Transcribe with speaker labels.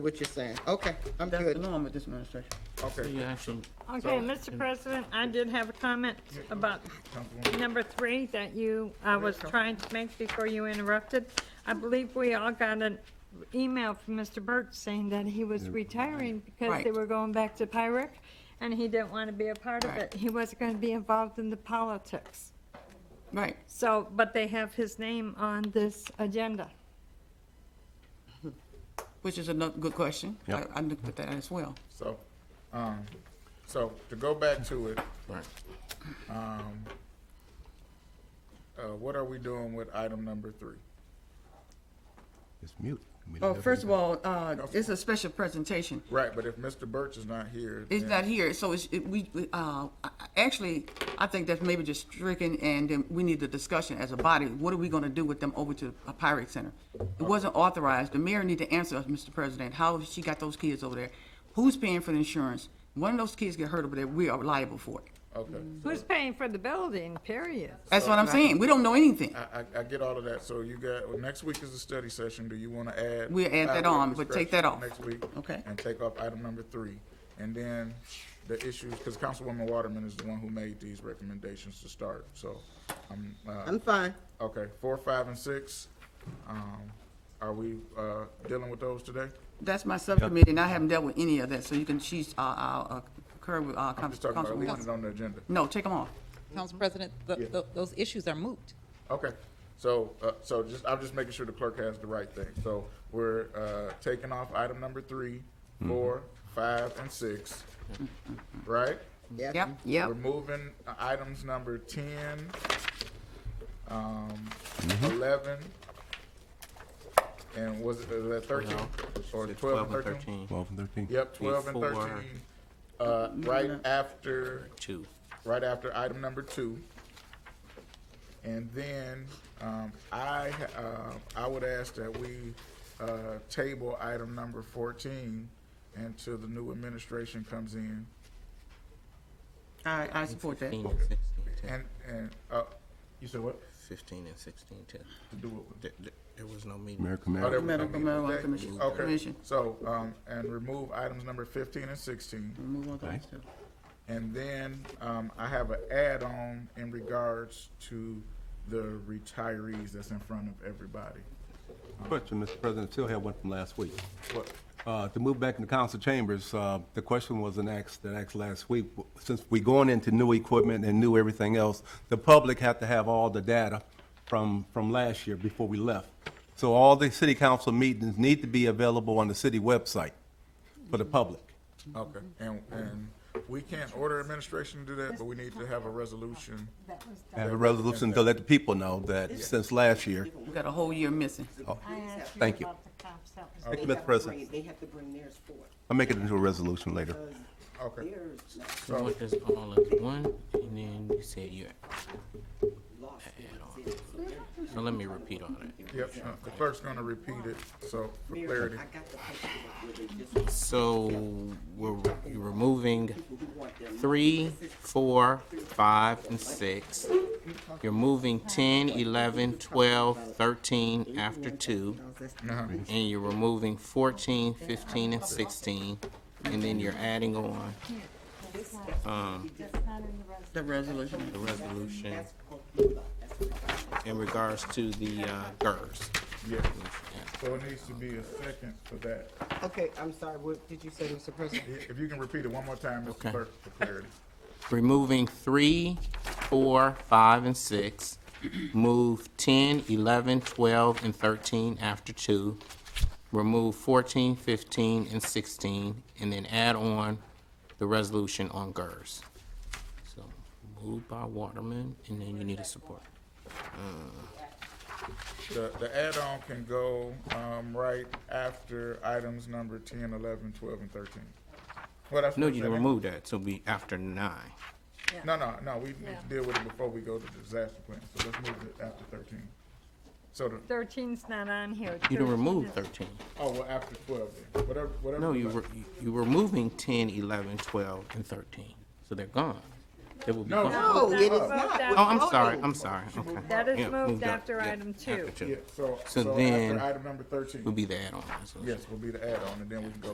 Speaker 1: what you're saying. Okay, I'm
Speaker 2: That's the
Speaker 1: good.
Speaker 2: norm with this administration.
Speaker 1: Okay.
Speaker 3: You actually,
Speaker 4: Okay, Mr. President, I did have a comment about number three that you, I was trying to make before you interrupted. I believe we all got an email from Mr. Burt saying that he was retiring because they
Speaker 2: Right.
Speaker 4: were going back to Pyrex, and he didn't want to be a part of
Speaker 2: Right.
Speaker 4: it. He wasn't going to be involved in the politics.
Speaker 2: Right.
Speaker 4: So, but they have his name on this agenda.
Speaker 2: Which is another good question.
Speaker 3: Yep.
Speaker 2: I, I looked at that as well.
Speaker 5: So, um, so to go back to it,
Speaker 3: right,
Speaker 5: um, uh, what are we doing with item number three?
Speaker 6: It's mute. We
Speaker 2: Well,
Speaker 6: never-
Speaker 2: Oh, first of all, uh, it's a special presentation.
Speaker 5: Right, but if Mr. Birch is not here,
Speaker 2: It's
Speaker 5: then-
Speaker 2: not here, so it's, it, we, we, uh, I- I- actually, I think that's maybe just stricken, and then we need the discussion as a body. What are we gonna do with them over to a Pirate Center? It wasn't authorized. The mayor need to answer us, Mr. President, how she got those kids over there? Who's paying for the insurance? One of those kids get hurt over there, we are liable for it.
Speaker 5: Okay,
Speaker 4: Who's paying for the building, period?
Speaker 2: That's what I'm saying. We don't know anything.
Speaker 5: I, I, I get all of that. So you got, well, next week is a study session. Do you want to add?
Speaker 2: We'll add that
Speaker 5: five-year
Speaker 2: on, but take that
Speaker 5: discretion
Speaker 2: off.
Speaker 5: Next week.
Speaker 2: Okay.
Speaker 5: And take off item number three. And then the issues, because Councilwoman Waterman is the one who made these recommendations to start, so I'm, uh,
Speaker 1: I'm fine.
Speaker 5: okay, four, five, and six. Um, are we, uh, dealing with those today?
Speaker 2: That's my subcommittee, and I haven't dealt with any of that, so you can, she's, uh, uh, occur with, uh,
Speaker 5: I'm just talking about
Speaker 2: Council.
Speaker 5: leaving it on the agenda.
Speaker 2: No, take them off.
Speaker 7: Council President, th- th- those issues are moot.
Speaker 5: Okay, so, uh, so just, I'm just making sure the clerk has the right thing. So we're, uh, taking off item number three, four, five, and six, right?
Speaker 1: Yeah.
Speaker 2: Yep, yep.
Speaker 5: We're moving uh, items number ten, um, eleven, and was it, was that thirteen?
Speaker 3: No.
Speaker 5: Or
Speaker 3: It's
Speaker 5: twelve and
Speaker 3: 12
Speaker 5: thirteen?
Speaker 6: 12 and 13.
Speaker 5: Yep, twelve and
Speaker 3: Before-
Speaker 5: thirteen, uh, right after
Speaker 3: two.
Speaker 5: right after item number two. And then um, I uh, I would ask that we uh, table item number fourteen until the new administration comes in.
Speaker 2: I, I support that.
Speaker 3: 15 and 16, too.
Speaker 5: And and uh, you said what?
Speaker 3: 15 and 16, too.
Speaker 5: To do it. with-
Speaker 3: There- there- There was no meeting.
Speaker 6: American
Speaker 5: Oh, there
Speaker 6: Mad.
Speaker 5: we
Speaker 2: Medical
Speaker 5: go.
Speaker 2: marijuana commission.
Speaker 5: Okay,
Speaker 2: Commission.
Speaker 5: so um, and remove items number fifteen and sixteen.
Speaker 2: Move on to
Speaker 6: Right.
Speaker 2: this stuff.
Speaker 5: And then um, I have an add-on in regards to the retirees that's in front of everybody.
Speaker 6: Question, Mr. President, still have one from last week.
Speaker 5: What?
Speaker 6: Uh, To move back into council chambers, uh, the question was an asked, that asked last week, since we going into new equipment and new everything else, the public have to have all the data from, from last year before we left. So all the city council meetings need to be available on the city website for the public.
Speaker 5: Okay, and, and we can't order administration to do that, but we need to have a resolution.
Speaker 2: Mm-hmm.
Speaker 6: Have a resolution to let the people know that since last year.
Speaker 2: We got a whole year missing.
Speaker 5: Oh.
Speaker 6: Thank you. Uh, Thank you, Mr. President.
Speaker 8: They have to bring theirs forward.
Speaker 6: I'll make it into a resolution later.
Speaker 5: Okay,
Speaker 8: Theirs not
Speaker 3: You want this all at one, and then you said you're,
Speaker 8: lost.
Speaker 3: now let me repeat all that.
Speaker 5: yep, uh, the clerk's gonna repeat it, so for
Speaker 8: Mary,
Speaker 5: clarity.
Speaker 8: I got the paperwork where they just,
Speaker 3: So we're re- removing
Speaker 8: who want their
Speaker 3: three, four, five, and six. You're moving 10, 11, 12, 13 after two.
Speaker 5: Uh-huh,
Speaker 3: And you're removing 14, 15, and 16, and then you're adding on
Speaker 2: The resolution.
Speaker 3: the resolution
Speaker 8: money. That's what I got.
Speaker 3: in regards to the uh, GERS.
Speaker 5: Yeah, so it needs to be a second for that.
Speaker 1: Okay, I'm sorry. What did you say, Mr. President?
Speaker 5: I- If you can repeat it one more time, Mr.
Speaker 3: Okay.
Speaker 5: Clerk, for clarity.
Speaker 3: Removing three, four, five, and six. Move 10, 11, 12, and 13 after two. Remove 14, 15, and 16, and then add on the resolution on GERS. So moved by Waterman, and then you need a support.
Speaker 5: The, the add-on can go, um, right after items number 10, 11, 12, and thirteen. Well, that's
Speaker 3: No,
Speaker 5: what
Speaker 3: you
Speaker 5: I'm saying.
Speaker 3: remove that, so be after nine.
Speaker 5: No, no, no, we need to deal with it before we go to the disaster plan, so let's move it after thirteen. So the,
Speaker 4: 13's not on here.
Speaker 3: You
Speaker 4: 13
Speaker 3: don't remove
Speaker 4: is-
Speaker 3: 13.
Speaker 5: oh, well, after twelve then, whatever, whatever.
Speaker 3: No,
Speaker 5: the
Speaker 3: you,
Speaker 5: clerk-
Speaker 3: re- you- you're removing 10, 11, 12, and 13, so they're gone. It will be.
Speaker 5: No.
Speaker 3: Oh,
Speaker 1: No,
Speaker 4: that
Speaker 1: it is not.
Speaker 4: was moved
Speaker 1: Oh,
Speaker 4: after-
Speaker 3: I'm sorry, I'm sorry. Okay.
Speaker 4: That
Speaker 3: Yeah,
Speaker 4: is moved
Speaker 3: up.
Speaker 4: after
Speaker 3: Yeah,
Speaker 4: item two.
Speaker 3: after two.
Speaker 5: Yeah, so,
Speaker 3: So
Speaker 5: so
Speaker 3: then-
Speaker 5: after item number thirteen,
Speaker 3: Will be the add-on. resolution.
Speaker 5: yes, will be the add-on, and then we can go